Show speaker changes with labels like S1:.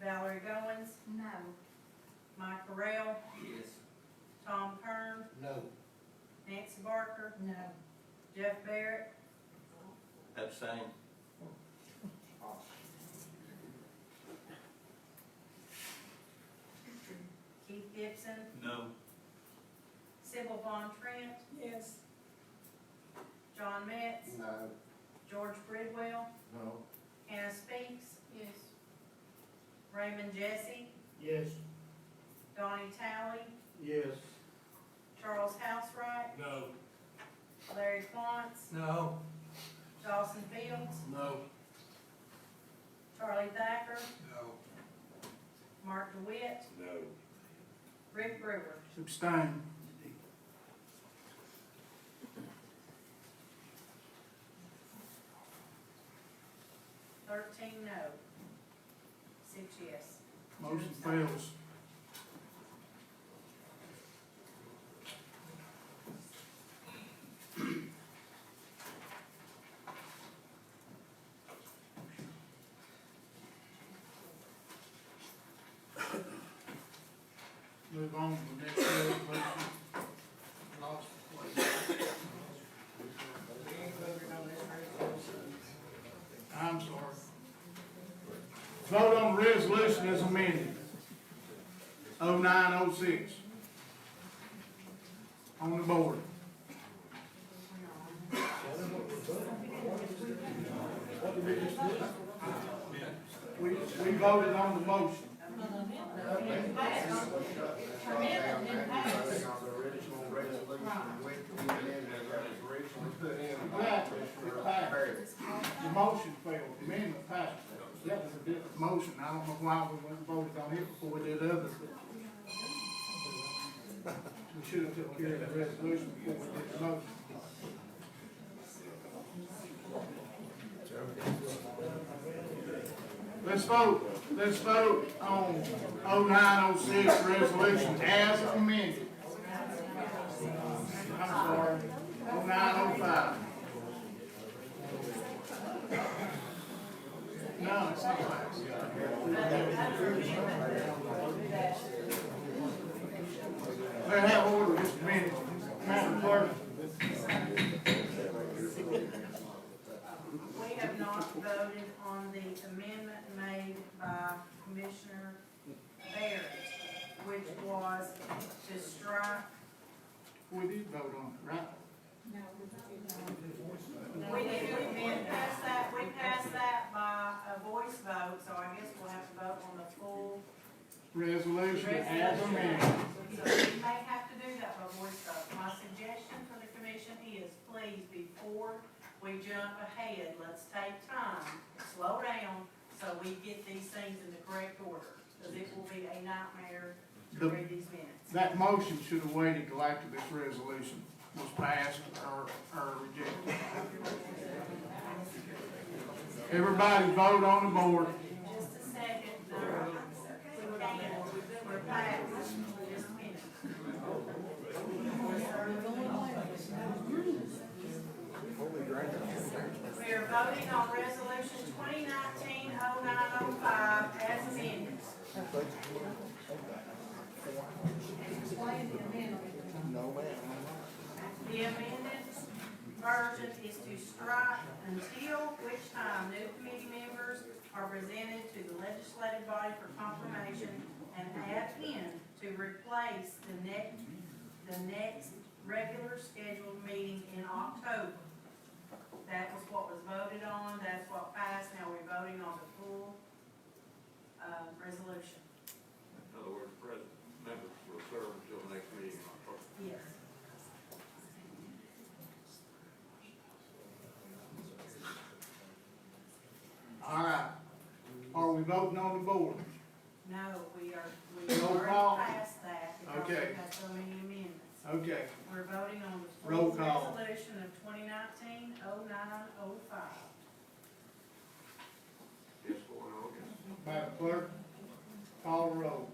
S1: Terry Goins,
S2: No.
S1: Mike Correll,
S3: Yes.
S1: Tom Kern,
S4: No.
S1: Nancy Barker,
S2: No.
S1: Jeff Barrett,
S3: Abstain.
S1: Keith Gibson,
S3: No.
S1: Sybil Von Trent,
S2: Yes.
S1: John Metz,
S4: No.
S1: George Bridwell,
S4: No.
S1: Hannah Speaks,
S2: Yes.
S1: Raymond Jesse,
S4: Yes.
S1: Donnie Talley,
S4: Yes.
S1: Charles Housewright,
S4: No.
S1: Larry Quantz,
S4: No.
S1: Dawson Fields,
S4: No.
S1: Charlie Thacker,
S4: No.
S1: Mark DeWitt,
S4: No.
S1: Rick Brewer.
S4: Abstain.
S1: Thirteen no. Six yes.
S4: Motion fails. Move on to the next resolution. Lost place. I'm sorry. Vote on the resolution as amended. Oh nine oh six. On the board. We, we voted on the motion. The motion failed, amendment passed. That was a different motion, I don't know why we went and voted on it before we did others, but we should have took care of the resolution before we did the motion. Let's vote, let's vote on oh nine oh six resolution as amended. I'm sorry, oh nine oh five. No, it's not. They have order just a minute, Madam Clerk.
S1: We have not voted on the amendment made by Commissioner Barrett, which was to strike,
S4: We did vote on it, right?
S2: No.
S1: we did, we did pass that, we passed that by a voice vote, so I guess we'll have to vote on the full.
S4: Resolution as amended.
S1: So we may have to do that by voice vote. My suggestion for the commission is, please, before we jump ahead, let's take time, slow down, so we get these things in the correct order, because it will be a nightmare to
S4: The-
S1: read these minutes.
S4: That motion should have waited till after this resolution was passed or, or rejected. Everybody vote on the board.
S1: Just a second, uh, we can, we're past, just a minute. We are voting on resolution twenty nineteen oh nine oh five as amended.
S2: Explain the amendment.
S1: The amended version is to strike until which time new committee members are presented to the legislative body for confirmation and add in to replace the next, the next regular scheduled meeting in October. That was what was voted on, that's what passed, now we're voting on the full, uh, resolution.
S3: In other words, present members will serve until the next meeting in October.
S1: Yes.
S4: All right. Are we voting on the board?
S1: No, we are, we
S4: Roll
S1: are
S4: call.
S1: past that because we
S4: Okay.
S1: have so many amendments.
S4: Okay.
S1: We're voting on the full
S4: Roll call.
S1: resolution of twenty nineteen oh nine oh five.
S3: Yes, four, no, yes.
S4: Madam Clerk, call the roll.